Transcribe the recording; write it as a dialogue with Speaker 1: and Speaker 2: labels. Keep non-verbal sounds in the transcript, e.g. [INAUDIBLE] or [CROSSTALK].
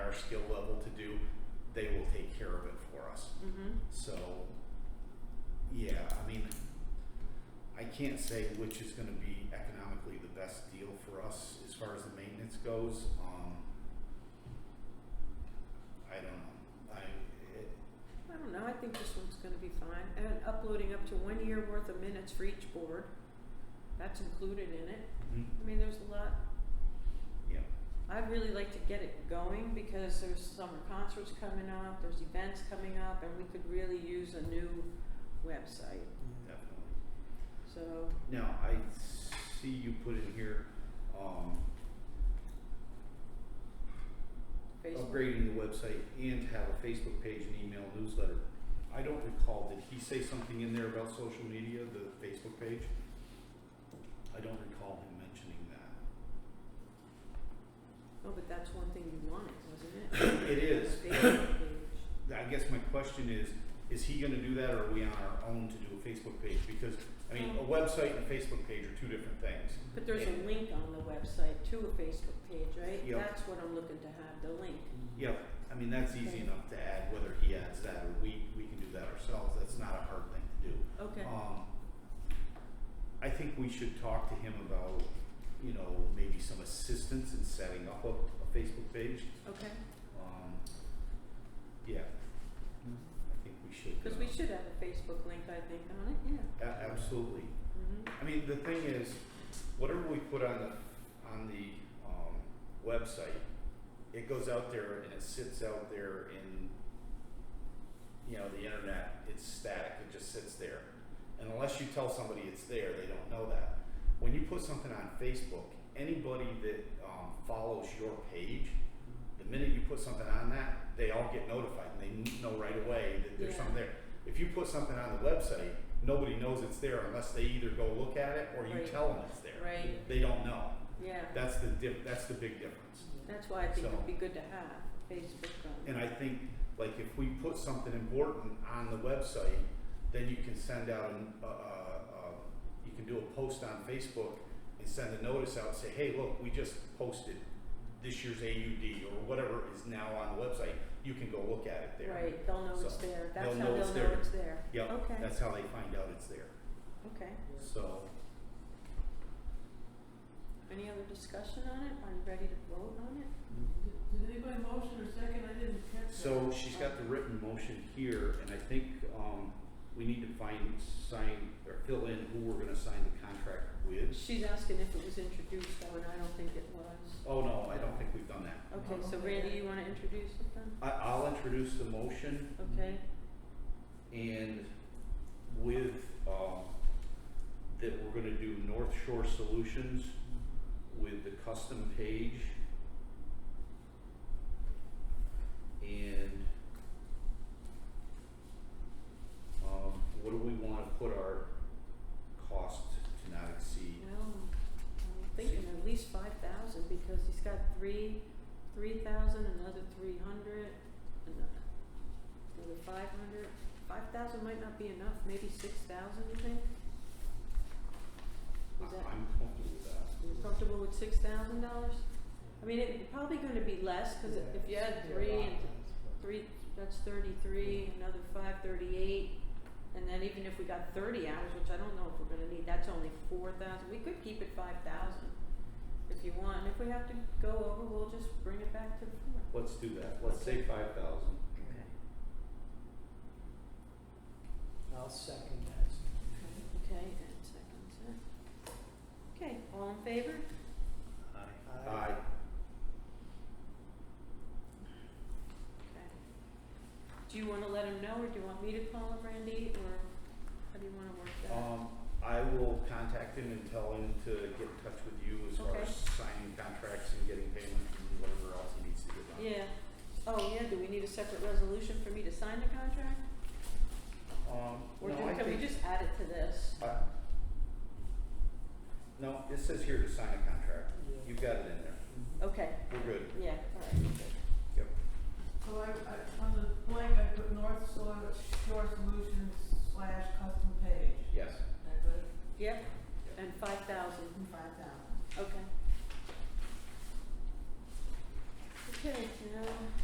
Speaker 1: our skill level to do, they will take care of it for us.
Speaker 2: Mm-hmm.
Speaker 1: So, yeah, I mean, I can't say which is gonna be economically the best deal for us as far as the maintenance goes, um. I don't know, I, it,
Speaker 2: I don't know, I think this one's gonna be fine, and uploading up to one year worth of minutes for each board, that's included in it, I mean, there's a lot.
Speaker 1: hmm, yeah,
Speaker 2: I'd really like to get it going because there's summer concerts coming up, there's events coming up, and we could really use a new website,
Speaker 1: definitely.
Speaker 2: so.
Speaker 1: Now, I see you put in here, um,
Speaker 2: Facebook.
Speaker 1: upgrading the website and have a Facebook page and email newsletter. I don't recall, did he say something in there about social media, the Facebook page? I don't recall him mentioning that. [COUGHS]
Speaker 2: No, Oh, but that's one thing you wanted, wasn't it?
Speaker 1: It is.
Speaker 2: A Facebook page.
Speaker 1: I guess my question is, is he gonna do that or are we on our own to do a Facebook page? Because, I mean, a website and a Facebook page are two different things.
Speaker 2: But there's a link on the website to a Facebook page, right?
Speaker 1: Yep.
Speaker 2: That's what I'm looking to have, the link.
Speaker 1: Yeah, I mean, that's easy enough to add, whether he adds that or we, we can do that ourselves, that's not a hard thing to do.
Speaker 2: Okay,
Speaker 1: Um, I think we should talk to him about, you know, maybe some assistance in setting up a, a Facebook page.
Speaker 2: okay,
Speaker 1: Um, yeah, I think we should.
Speaker 2: cause
Speaker 1: uh,
Speaker 2: we should have a Facebook link, I think, on it, yeah.
Speaker 1: a- absolutely.
Speaker 2: Mm-hmm,
Speaker 1: I mean, the thing is, whatever we put on the, on the, um, website, it goes out there and it sits out there in, you know, the internet, it's static, it just sits there. And unless you tell somebody it's there, they don't know that. When you put something on Facebook, anybody that, um, follows your page, the minute you put something on that, they all get notified and they know right away that there's
Speaker 2: Yeah.
Speaker 1: something there. If you put something on the website, nobody knows it's there unless they either go look at it or you
Speaker 2: Right.
Speaker 1: tell them it's there.
Speaker 2: Mm-hmm. right,
Speaker 1: They don't know.
Speaker 2: yeah,
Speaker 1: That's the diff, that's the big difference.
Speaker 2: that's why I think
Speaker 1: So-
Speaker 2: it'd be good to have Facebook on,
Speaker 1: And I think, like, if we put something important on the website, then you can send out an, uh, uh, uh, you can do a post on Facebook and send a notice out, and say, hey, look, we just posted this year's AUD or whatever is now on the website. You can go look at it there.
Speaker 2: right, they'll know it's
Speaker 1: So,
Speaker 2: there, that's
Speaker 1: they'll
Speaker 2: how
Speaker 1: know
Speaker 2: they'll
Speaker 1: it's
Speaker 2: know
Speaker 1: there.
Speaker 2: it's there.
Speaker 1: Yep,
Speaker 2: Okay,
Speaker 1: that's how they find out it's there.
Speaker 2: okay,
Speaker 1: So,
Speaker 2: any other discussion on it, are you ready to vote on it?
Speaker 3: Did anybody motion or second? I didn't catch that.
Speaker 1: so she's got the written motion here, and I think, um, we need to find, sign, or fill in who we're gonna sign the contract with.
Speaker 2: She's asking if it was introduced though, and I don't think it was.
Speaker 1: Oh, no, I don't think we've done that.
Speaker 2: Okay, so Randy, you wanna introduce it then?
Speaker 1: I, I'll introduce the motion
Speaker 2: Okay,
Speaker 1: and with, um, that we're gonna do North Shore Solutions with the custom page. And, um, what do we wanna put our cost to not exceed?
Speaker 2: well, I'm thinking at least five thousand, because he's got three, three thousand, another three hundred, another, another five hundred. Five thousand might not be enough, maybe six thousand, you think?
Speaker 1: I-
Speaker 2: Is that,
Speaker 1: I'm comfortable with that.
Speaker 2: you comfortable with six thousand dollars? I mean, it's probably gonna be less, cause if you add three and three, that's thirty-three, another five, thirty-eight. And then even if we got thirty hours, which I don't know if we're gonna need, that's only four thousand, we could keep it five thousand if you want, and if we have to go over, we'll just bring it back to the floor.
Speaker 1: Let's do that, let's say five thousand.
Speaker 2: Okay.
Speaker 3: I'll second that.
Speaker 2: Okay, and seconds, it. Okay, all in favor?
Speaker 3: Aye.
Speaker 1: Aye.
Speaker 2: Okay. Do you wanna let him know, or do you want me to call him, Randy, or how do you wanna work that?
Speaker 1: Um, I will contact him and tell him to get in touch with you as far as signing contracts and getting payment and whatever else he needs to get done.
Speaker 2: Yeah, oh yeah, do we need a separate resolution for me to sign the contract?
Speaker 1: Um,
Speaker 2: Or
Speaker 1: no, I
Speaker 2: do- can we
Speaker 1: think,
Speaker 2: just add it to this?
Speaker 1: I. No, it says here to sign a contract.
Speaker 3: Yeah.
Speaker 1: You've got it in there.
Speaker 2: Okay,
Speaker 1: We're good.
Speaker 2: yeah, alright, good.
Speaker 4: So I, I, on the blank, I put North Shore Shore Solutions slash custom page,
Speaker 1: Yes.
Speaker 4: is that good?
Speaker 2: Yep,